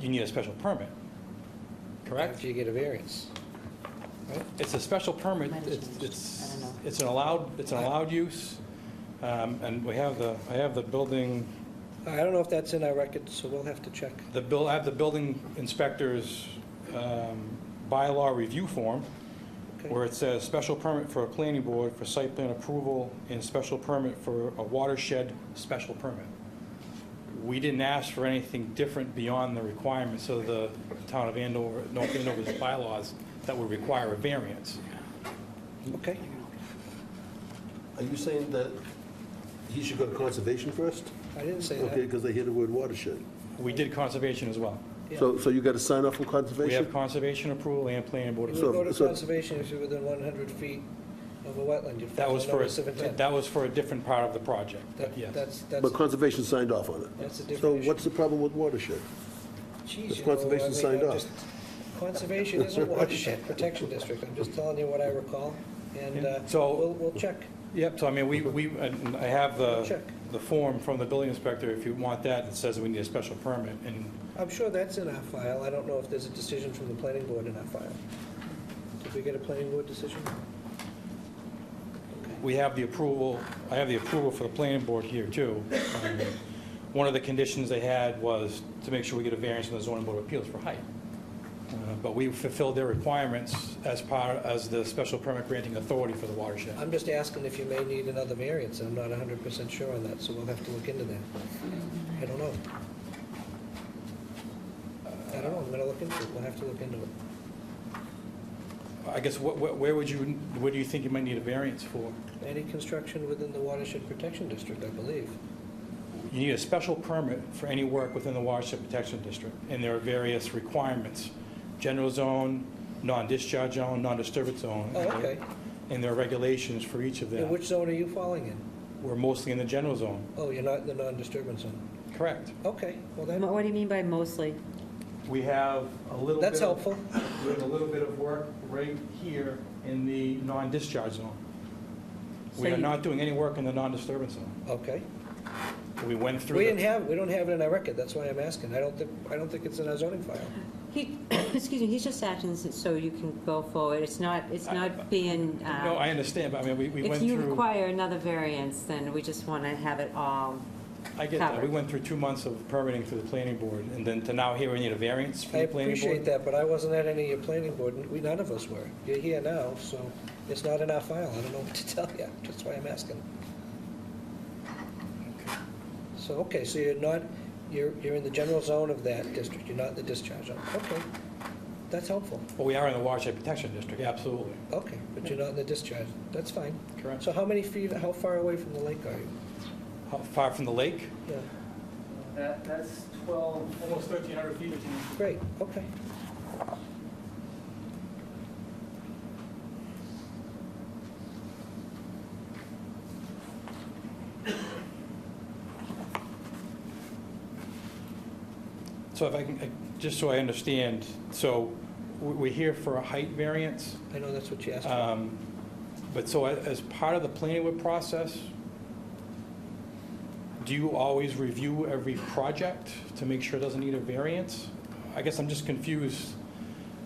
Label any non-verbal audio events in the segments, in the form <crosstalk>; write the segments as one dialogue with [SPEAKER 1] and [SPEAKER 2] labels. [SPEAKER 1] you need a special permit, correct?
[SPEAKER 2] After you get a variance.
[SPEAKER 1] It's a special permit,
[SPEAKER 3] Might have
[SPEAKER 1] it's,
[SPEAKER 3] changed. I
[SPEAKER 1] it's,
[SPEAKER 3] don't know.
[SPEAKER 1] it's an allowed, it's an allowed use, um, and we have the, I have the building,
[SPEAKER 2] I don't know if that's in our record, so we'll have to check.
[SPEAKER 1] the bill, I have the building inspector's um, bylaw review form,
[SPEAKER 2] Okay.
[SPEAKER 1] where it says, "Special permit for a planning board for site plan approval and special permit for a watershed special permit." We didn't ask for anything different beyond the requirements of the town of Andover, North Andover's bylaws that would require a variance.
[SPEAKER 2] Okay.
[SPEAKER 4] Are you saying that he should go to conservation first?
[SPEAKER 2] I didn't say
[SPEAKER 4] Okay,
[SPEAKER 2] that.
[SPEAKER 4] because they hear the word watershed.
[SPEAKER 1] We did conservation as well.
[SPEAKER 4] So, so you got to sign off on
[SPEAKER 1] We have
[SPEAKER 4] conservation?
[SPEAKER 1] conservation approval and planning board
[SPEAKER 2] You
[SPEAKER 4] So-
[SPEAKER 2] would
[SPEAKER 1] approval.
[SPEAKER 2] go to
[SPEAKER 4] so-
[SPEAKER 2] conservation if you're within 100 feet of a wetland. You'd
[SPEAKER 1] That
[SPEAKER 2] file
[SPEAKER 1] was
[SPEAKER 2] a
[SPEAKER 1] for,
[SPEAKER 2] notice of
[SPEAKER 1] a-
[SPEAKER 2] intent.
[SPEAKER 1] that was for a different part of the project,
[SPEAKER 2] That-
[SPEAKER 1] yes.
[SPEAKER 2] That's, that's,
[SPEAKER 4] But conservation signed off on it.
[SPEAKER 2] that's a different
[SPEAKER 4] So
[SPEAKER 2] issue.
[SPEAKER 4] what's the problem with watershed?
[SPEAKER 2] Jeez,
[SPEAKER 4] Has
[SPEAKER 2] you know, I
[SPEAKER 4] conservation
[SPEAKER 2] mean,
[SPEAKER 4] signed
[SPEAKER 2] I'm
[SPEAKER 4] off?
[SPEAKER 2] just- Conservation is a watershed protection district, I'm just telling you what I recall, and uh,
[SPEAKER 1] So-
[SPEAKER 2] we'll, we'll check.
[SPEAKER 1] Yep, so I mean, we, we, and I have the,
[SPEAKER 2] Check.
[SPEAKER 1] the form from the building inspector, if you want that, that says we need a special permit, and
[SPEAKER 2] I'm sure that's in our file, I don't know if there's a decision from the planning board in our file. Did we get a planning board decision?
[SPEAKER 1] we have the approval, I have the approval for the planning board here, too. Um, One of the conditions they had was to make sure we get a variance from the zoning board of appeals for height. Uh, But we fulfilled their requirements as part, as the special permit granting authority for the watershed.
[SPEAKER 2] I'm just asking if you may need another variance, I'm not hundred percent sure on that, so we'll have to look into that. I don't know. I don't know, I'm gonna look into it, we'll have to look into it.
[SPEAKER 1] I guess, wh- wh- where would you, where do you think you might need a variance for?
[SPEAKER 2] Any construction within the watershed protection district, I believe.
[SPEAKER 1] You need a special permit for any work within the watershed protection district, and there are various requirements. General zone, non-discharge zone, non-disturbance zone.
[SPEAKER 2] Oh, okay.
[SPEAKER 1] And there are regulations for each of
[SPEAKER 2] In
[SPEAKER 1] them.
[SPEAKER 2] which zone are you falling in?
[SPEAKER 1] We're mostly in the general zone,
[SPEAKER 2] Oh, you're not in the non-disturbance zone.
[SPEAKER 1] correct?
[SPEAKER 2] Okay, well
[SPEAKER 3] Mo-
[SPEAKER 2] then,
[SPEAKER 3] What do you mean by mostly?
[SPEAKER 1] We have a little bit.
[SPEAKER 2] that's
[SPEAKER 1] of-
[SPEAKER 2] helpful.
[SPEAKER 1] We have a little bit of work right here in the non-discharge zone. We
[SPEAKER 3] So
[SPEAKER 1] are
[SPEAKER 3] you-
[SPEAKER 1] not doing any work in the non-disturbance zone.
[SPEAKER 2] Okay.
[SPEAKER 1] We went through.
[SPEAKER 2] We
[SPEAKER 1] the-
[SPEAKER 2] didn't have, we don't have it in our record, that's why I'm asking. I don't think, I don't think it's in our zoning file.
[SPEAKER 3] He, <coughs> excuse me, he's just acting s- so you can go forward. It's not, it's not being, uh,
[SPEAKER 1] No, I understand, but I mean, we we went
[SPEAKER 3] if
[SPEAKER 1] through.
[SPEAKER 3] you require another variance, then we just want to have it all.
[SPEAKER 1] I get that. We
[SPEAKER 3] covered.
[SPEAKER 1] went through two months of permitting through the planning board, and then to now here we need a variance
[SPEAKER 2] I
[SPEAKER 1] from the planning board?
[SPEAKER 2] appreciate that, but I wasn't at any of your planning board, and we, none of us were. You're here now, so it's not in our file, I don't know <laughs> what to tell you, that's why I'm asking. So, okay, so you're not, you're, you're in the general zone of that district, you're not in the discharge zone. Okay, that's helpful.
[SPEAKER 1] Well, we are in the watershed protection district, absolutely.
[SPEAKER 2] Okay, but you're not in the discharge, that's fine.
[SPEAKER 1] Correct.
[SPEAKER 2] So how many feet, how far away from the lake are you?
[SPEAKER 1] How far from the lake?
[SPEAKER 2] Yeah,
[SPEAKER 5] That, that's 12,
[SPEAKER 1] Almost 1,300 feet.
[SPEAKER 2] great, okay.
[SPEAKER 1] So if I can, I- just so I understand, so we- we're here for a height variance,
[SPEAKER 2] I know that's what you asked for.
[SPEAKER 1] um, but so a- as part of the planning board process, do you always review every project to make sure it doesn't need a variance? I guess I'm just confused.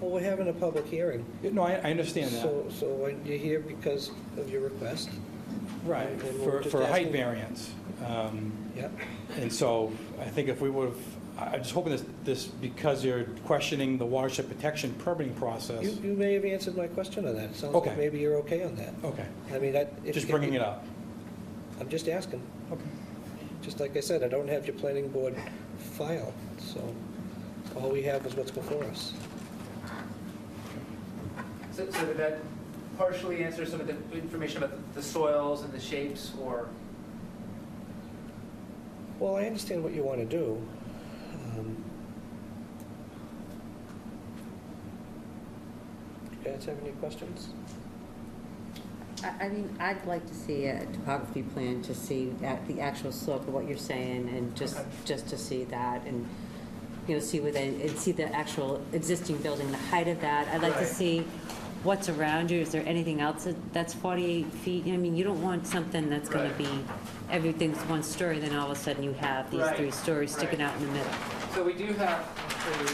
[SPEAKER 2] Well, we're having a public hearing.
[SPEAKER 1] No, I I understand that.
[SPEAKER 2] So, so when you're here because of your request,
[SPEAKER 1] Right,
[SPEAKER 2] And we'll
[SPEAKER 1] for,
[SPEAKER 2] just
[SPEAKER 1] for a height
[SPEAKER 2] ask-
[SPEAKER 1] variance. Um,
[SPEAKER 2] yeah,
[SPEAKER 1] And so I think if we would have, I- I'm just hoping this, this, because you're questioning the watershed protection permitting
[SPEAKER 2] you,
[SPEAKER 1] process.
[SPEAKER 2] you may have answered my question on that. It sounds like
[SPEAKER 1] Okay.
[SPEAKER 2] maybe you're okay on that.
[SPEAKER 1] Okay,
[SPEAKER 2] I mean, that. if-
[SPEAKER 1] just bringing it up.
[SPEAKER 2] I'm just asking.
[SPEAKER 1] Okay.
[SPEAKER 2] Just like I said, I don't have your planning board file, so all we have is what's before us.
[SPEAKER 5] so so did that partially answer some of the information about the- the soils and the shapes, or?
[SPEAKER 2] Well, I understand what you want to do. Um, You guys have any questions?
[SPEAKER 3] I, I mean, I'd like to see a topography plan to see that, the actual slope of what you're saying and just,
[SPEAKER 5] Okay.
[SPEAKER 3] just to see that and, you know, see within, and see the actual existing building, the height of that. I'd like to
[SPEAKER 5] Right.
[SPEAKER 3] see what's around you. Is there anything else that- that's 48 feet? I mean, you don't want something that's going to
[SPEAKER 5] Right.
[SPEAKER 3] be, everything's one story, then all of a sudden you have these three
[SPEAKER 5] Right,
[SPEAKER 3] stories sticking
[SPEAKER 5] right.
[SPEAKER 3] out in the middle.
[SPEAKER 5] So we do have, so we